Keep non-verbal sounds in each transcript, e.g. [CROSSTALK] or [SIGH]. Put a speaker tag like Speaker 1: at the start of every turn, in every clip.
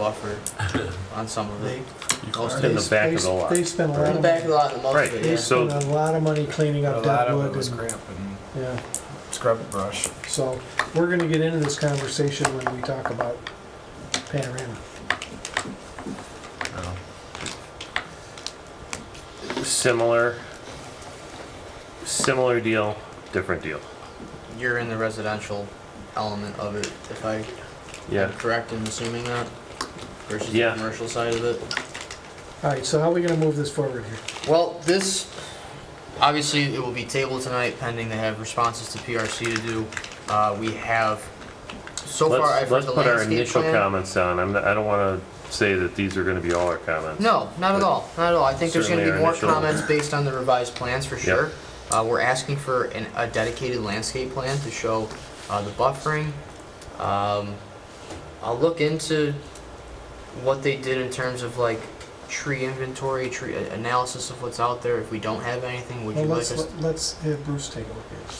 Speaker 1: buffer
Speaker 2: [LAUGHS]
Speaker 1: on some of it. Most
Speaker 2: Most
Speaker 1: of
Speaker 2: in
Speaker 1: it.
Speaker 2: the
Speaker 3: They-
Speaker 2: back
Speaker 3: they-
Speaker 2: of the lot.
Speaker 3: They spent a
Speaker 1: In
Speaker 3: lot
Speaker 1: the
Speaker 3: of,
Speaker 1: back
Speaker 3: money-
Speaker 1: of the lot, the most of
Speaker 2: Right.
Speaker 1: it,
Speaker 3: they
Speaker 1: yeah.
Speaker 3: spent a lot of money cleaning
Speaker 4: A
Speaker 3: up
Speaker 4: lot
Speaker 3: that
Speaker 4: of it
Speaker 3: wood
Speaker 4: was
Speaker 3: and,
Speaker 4: crap and
Speaker 3: yeah.
Speaker 4: scrub brush.
Speaker 3: So, we're gonna get into this conversation when we talk about panorama.
Speaker 2: Similar, similar deal, different deal.
Speaker 1: You're in the residential element of it, if I am
Speaker 2: Yeah.
Speaker 1: correct in assuming that, versus the
Speaker 2: Yeah.
Speaker 1: commercial side of it.
Speaker 3: Alright, so how are we gonna move this forward here?
Speaker 1: Well, this, obviously, it will be tabled tonight pending they have responses to PRC to do. Uh, we have, so far, I've
Speaker 2: Let's,
Speaker 1: read
Speaker 2: let's
Speaker 1: the
Speaker 2: put our
Speaker 1: landscape
Speaker 2: initial
Speaker 1: plan.
Speaker 2: comments down. I'm, not- I don't wanna say that these are gonna be all our comments.
Speaker 1: No, not at all, not at all. I think there's gonna be
Speaker 2: Certainly
Speaker 1: more
Speaker 2: our initial-
Speaker 1: comments based on the revised plans for sure.
Speaker 2: Yep.
Speaker 1: Uh, we're asking for an, a dedicated landscape plan to show, uh, the buffering. Um, I'll look into what they did in terms of like tree inventory, tree a- analysis of what's out there. If we don't have anything, would you
Speaker 3: Well,
Speaker 1: like
Speaker 3: let's,
Speaker 1: us?
Speaker 3: let's have Bruce take a look at it.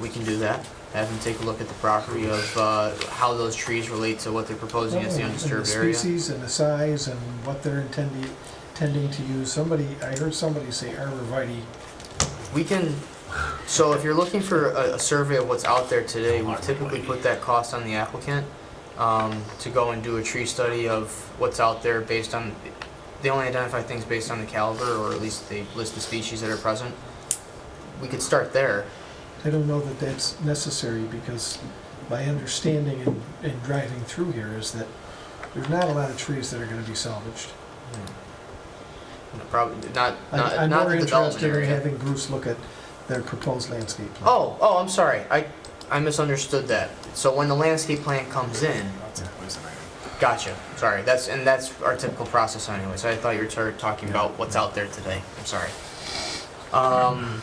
Speaker 1: We can do that. Have them take a look at the property of, uh, how those trees relate to what they're proposing as the
Speaker 3: Oh, And
Speaker 1: undisturbed area.
Speaker 3: Species and the size and what they're intending, intending to use. Somebody, I heard somebody say arborvitae.
Speaker 1: We can, so if you're looking for a, a survey of what's out there today, we typically put that cost on the applicant, um, to go and do a tree study of what's out there based on, they only identify things based on the caliber, or at least they list the species that are present. We could start there.
Speaker 3: I don't know that that's necessary because my understanding in, in driving through here is that there's not a lot of trees that are gonna be salvaged.
Speaker 1: Probably, not, not,
Speaker 3: I'm-
Speaker 1: not the development
Speaker 3: I'm more interested in
Speaker 1: area.
Speaker 3: having Bruce look at their proposed landscape. plan.
Speaker 1: Oh, oh, I'm sorry, I, I misunderstood that. So when the landscape plan comes in,
Speaker 4: That's always an item.
Speaker 1: Gotcha. Sorry. That's and that's our typical process anyway. So I thought you were tar- talking about what's out there today. I'm sorry. Um.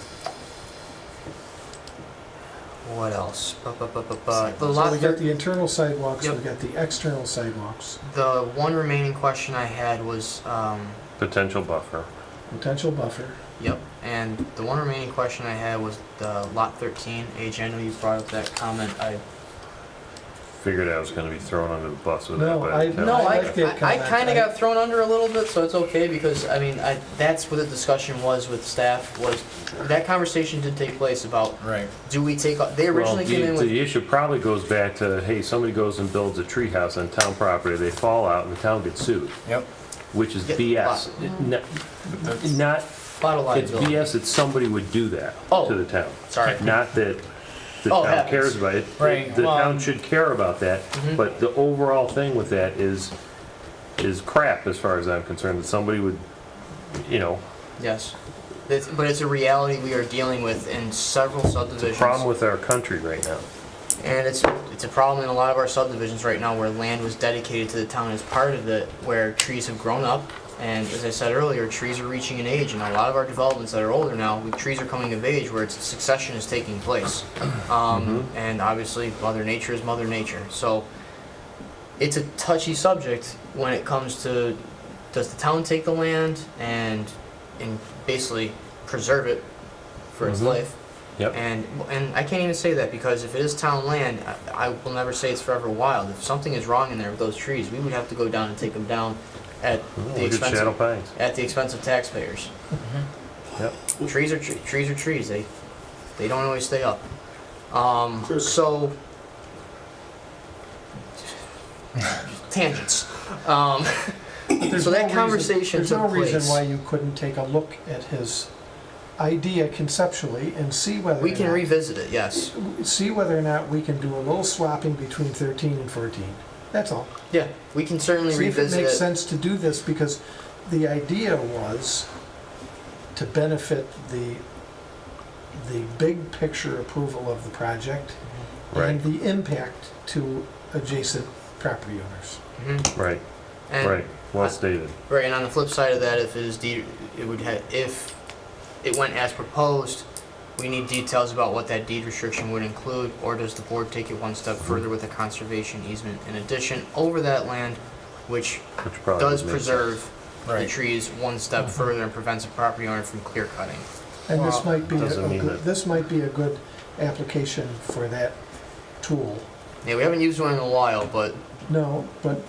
Speaker 1: What else? Bu- bu- bu- bu- bu- The
Speaker 3: So we
Speaker 1: lot.
Speaker 3: got
Speaker 1: thir-
Speaker 3: the internal sidewalks, we
Speaker 1: Yep.
Speaker 3: got the external sidewalks,
Speaker 1: the one remaining question I had was um.
Speaker 2: Potential buffer.
Speaker 3: potential buffer.
Speaker 1: Yep. And the one remaining question I had was the lot 13. Age. I know you brought up that comment. I
Speaker 2: Figured I was gonna be thrown under the bus with that,
Speaker 3: No,
Speaker 2: but.
Speaker 3: I-
Speaker 2: no.
Speaker 1: No, I,
Speaker 3: like that
Speaker 1: I,
Speaker 3: comment.
Speaker 1: kind
Speaker 3: I-
Speaker 1: of got thrown under a little bit, so it's okay because I mean, I, that's what the discussion was with staff was that conversation did take place about
Speaker 4: Right.
Speaker 1: do we take o- they
Speaker 2: Well,
Speaker 1: originally
Speaker 2: the,
Speaker 1: came in with
Speaker 2: the issue probably goes back to, hey, somebody goes and builds a treehouse on town property, they fall out and the town gets sued,
Speaker 4: Yep.
Speaker 2: which is
Speaker 1: Yeah,
Speaker 2: BS. N-
Speaker 4: But that's-
Speaker 2: Not,
Speaker 1: bottle
Speaker 2: it's
Speaker 1: liability.
Speaker 2: BS that somebody would do that
Speaker 1: Oh.
Speaker 2: to the town. [LAUGHS]
Speaker 1: Sorry,
Speaker 2: Not that the
Speaker 1: Oh,
Speaker 2: town
Speaker 1: happens. um,
Speaker 2: cares about it.
Speaker 4: Right,
Speaker 2: The
Speaker 4: well-
Speaker 2: town should care about that,
Speaker 1: Mhm.
Speaker 2: but the overall thing with that is, is crap as far as I'm concerned, that somebody would, you know,
Speaker 1: yes, It's- but it's a reality we are dealing with in several subdivisions.
Speaker 2: problem with our country right now.
Speaker 1: And it's, it's a problem in a lot of our subdivisions right now where land was dedicated to the town as part of it, where trees have grown up. And as I said earlier, trees are reaching an age, and a lot of our developments that are older now, we- trees are coming of age where it's, succession is taking place. Um, and obviously, Mother Nature is Mother Nature, so it's a touchy subject when it comes to, does the town take the land and, and basically preserve it for its
Speaker 2: Mhm.
Speaker 1: life?
Speaker 2: Yep.
Speaker 1: And, and I can't even say that because if it is town land, I, I will never say it's forever wild. If something is wrong in there with those trees, we would have to go down and take them down at the
Speaker 2: Look at
Speaker 1: expense
Speaker 2: Shadow
Speaker 1: of,
Speaker 2: Pines.
Speaker 1: at the expense of taxpayers.
Speaker 2: Mm-hmm. Yep.
Speaker 1: Trees are, tre- trees are trees, they, they don't always stay up. Um,
Speaker 3: True.
Speaker 1: so. Tangents. Um,
Speaker 3: But there's
Speaker 1: So
Speaker 3: no
Speaker 1: that
Speaker 3: reason-
Speaker 1: conversation took
Speaker 3: There's no
Speaker 1: place.
Speaker 3: reason why you couldn't take a look at his idea conceptually and see whether.
Speaker 1: we
Speaker 3: or
Speaker 1: can
Speaker 3: not-
Speaker 1: revisit it, yes.
Speaker 3: See whether or not we can do a little swapping between thirteen and fourteen. That's all.
Speaker 1: Yeah, we can certainly
Speaker 3: See if it
Speaker 1: revisit
Speaker 3: makes
Speaker 1: it.
Speaker 3: sense to do this, because the idea was to benefit the, the big picture approval of the project and
Speaker 2: Right.
Speaker 3: the impact to adjacent property owners.
Speaker 1: Mhm.
Speaker 2: Right,
Speaker 1: And-
Speaker 2: right, well
Speaker 1: I-
Speaker 2: stated.
Speaker 1: Right, and on the flip side of that, if it is de- it would have if it went as proposed, we need details about what that deed restriction would include, or does the board take it one step further with a conservation easement in addition over that land, which
Speaker 2: Which probably
Speaker 1: does
Speaker 2: makes
Speaker 1: preserve the
Speaker 4: Right.
Speaker 1: trees one step further and prevents a property owner from clear cutting.
Speaker 3: And this
Speaker 1: Well,
Speaker 3: might be, a
Speaker 2: doesn't
Speaker 3: a
Speaker 2: mean
Speaker 3: good-
Speaker 2: that-
Speaker 3: this might be a good application for that tool.
Speaker 1: Yeah, we haven't used one in a while, but
Speaker 3: No, but